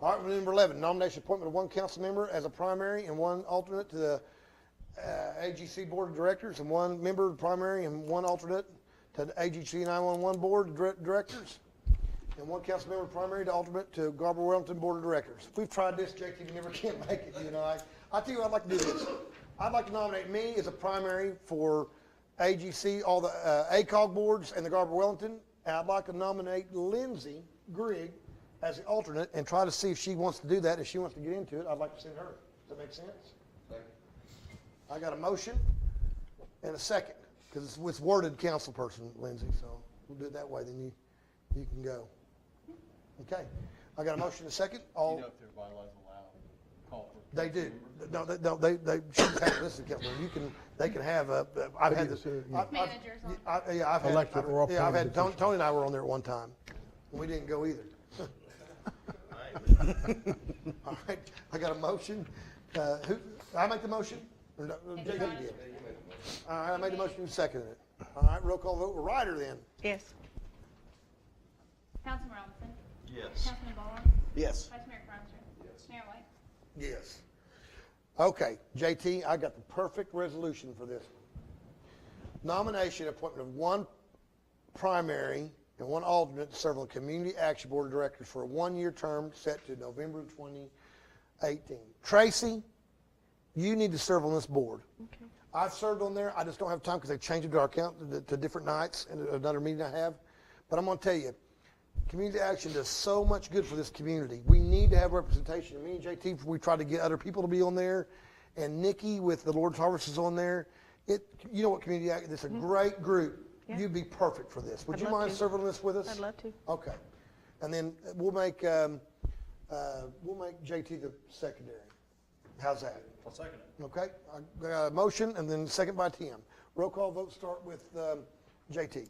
All right, number 11, nomination appointment of one council member as a primary and one alternate to the uh, AGC Board of Directors, and one member primary and one alternate to the AGC 911 Board of Dir- Directors, and one council member primary to alternate to Garber Wellington Board of Directors. We've tried this, Jake, you never can make it, you and I. I tell you, what I'd like to do this. I'd like to nominate me as a primary for AGC, all the uh, ACOG boards and the Garber Wellington, and I'd like to nominate Lindsay Grigg as the alternate and try to see if she wants to do that. If she wants to get into it, I'd like to send her. Does that make sense? I got a motion and a second, because it's it's worded council person, Lindsay, so we'll do it that way, then you, you can go. Okay, I got a motion and a second, You all, know if their bylaws allow call for. they do, no, they, no, they, they should have, listen, council, you can, they can have a, I've had this. I- I've- Managers on. uh, I, yeah, I've had. Elected or Yeah, I've had, appointed Tony, Tony and I were on there at one time, we didn't go either. All right, I got a motion, uh, who, I make the motion? Or no, Jake, you did. All right, I made the motion, you seconded it. All right, roll call vote, Ryder then. Yes. Councilman Robinson. Yes. Councilman Ballhorn. Yes. Vice Mayor Cronster. Mayor White. Yes. Okay, JT, I got the perfect resolution for this. Nomination, appointment of one primary and one alternate to serve on the Community Action Board of Directors for a one-year term set to November 2018. Tracy, you need to serve on this board. I've served on there, I just don't have time because they changed it to our count, to- to different nights and another meeting I have. But I'm going to tell you, community action does so much good for this community. We need to have representation. Me and JT, we try to get other people to be on there, and Nikki with the Lord's Harvest is on there. It, you know what, community action, it's a great group. Mm-hmm. Yeah. You'd be perfect for this. Would I'd you love mind to. serving on this with us? I'd love to. Okay. And then we'll make, um, uh, we'll make JT the secondary. How's that? I'll second it. Okay, I got a motion and then second by Tim. Roll call vote start with um, JT.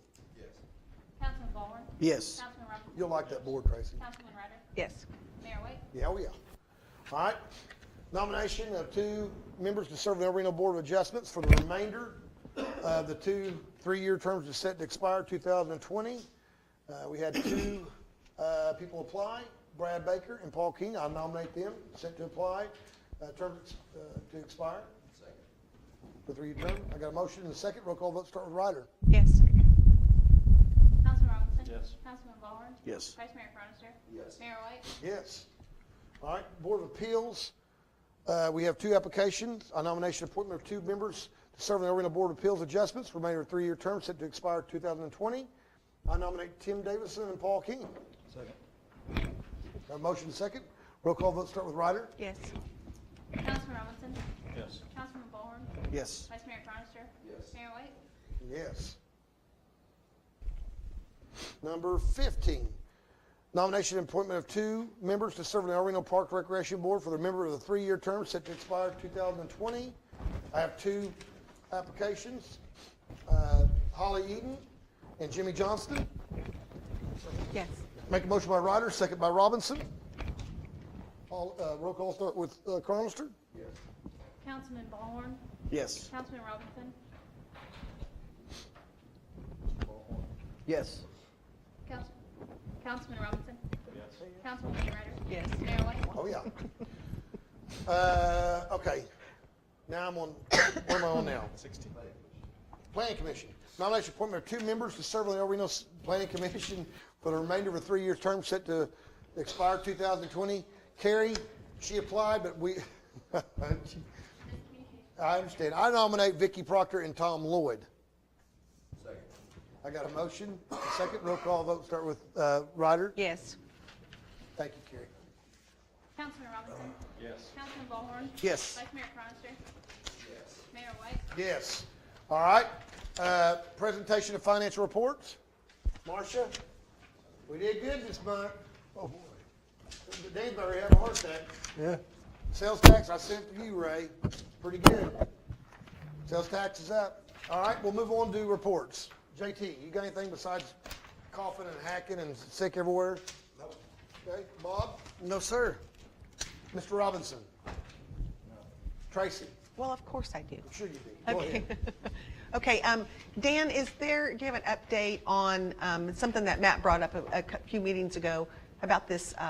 Councilman Ballhorn. Yes. Councilman Robinson. You'll like that board, Tracy. Councilman Ryder. Yes. Mayor White. Yeah, oh yeah. All right, nomination of two members to serve on the El Reno Board of Adjustments for the remainder of the two three-year terms that's set to expire 2020. Uh, We had two uh, people apply, Brad Baker and Paul King. I nominate them, set to apply, uh, terms uh, to expire. For three-year term. I got a motion and a second. Roll call vote start with Ryder. Yes. Councilman Robinson. Yes. Councilman Ballhorn. Yes. Vice Mayor Cronster. Yes. Mayor White. Yes. All right, Board of Appeals, uh, we have two applications, a nomination appointment of two members to serve on the Orlando Board of Appeals Adjustments, remainder of three-year term set to expire 2020. I nominate Tim Davison and Paul King. Second. Got a motion second. Roll call vote start with Ryder. Yes. Councilman Robinson. Yes. Councilman Ballhorn. Yes. Vice Mayor Cronster. Yes. Mayor White. Yes. Number 15, nomination and appointment of two members to serve on the El Reno Park Recreation Board for the member of the three-year term set to expire 2020. I have two applications, uh, Holly Eaton and Jimmy Johnston. Yes. Make a motion by Ryder, second by Robinson. All, uh, Roll call start with uh, Cronister. Councilman Ballhorn. Yes. Councilman Robinson. Yes. Council- Councilman Robinson. Yes. Councilman Ryder. Yes. Mayor White. Oh, yeah. Uh, okay. Now I'm on, where am I on now? Sixteen. Planning Commission. Nomination appointment of two members to serve on the El Reno S- Planning Commission for the remainder of a three-year term set to expire 2020. Carrie, she applied, but we, I understand. I nominate Vicky Proctor and Tom Lloyd. I got a motion, a second, roll call vote, start with uh, Ryder. Yes. Thank you, Carrie. Councilman Robinson. Yes. Councilman Ballhorn. Yes. Vice Mayor Cronster. Mayor White. Yes. All right. Uh, Presentation of financial reports. Marcia, we did good this month. Oh, boy. Danbury had a heart attack. Yeah. Sales tax, I sent to you, Ray. Pretty good. Sales tax is up. All right, we'll move on to reports. JT, you got anything besides coughing and hacking and sick everywhere? No. Okay, Bob? No, sir. Mr. Robinson? Tracy? Well, of course I do. I'm sure you do. Go Okay. ahead. Okay, um, Dan, is there, do you have an update on, um, something that Matt brought up a, a cou- few meetings ago about this, uh,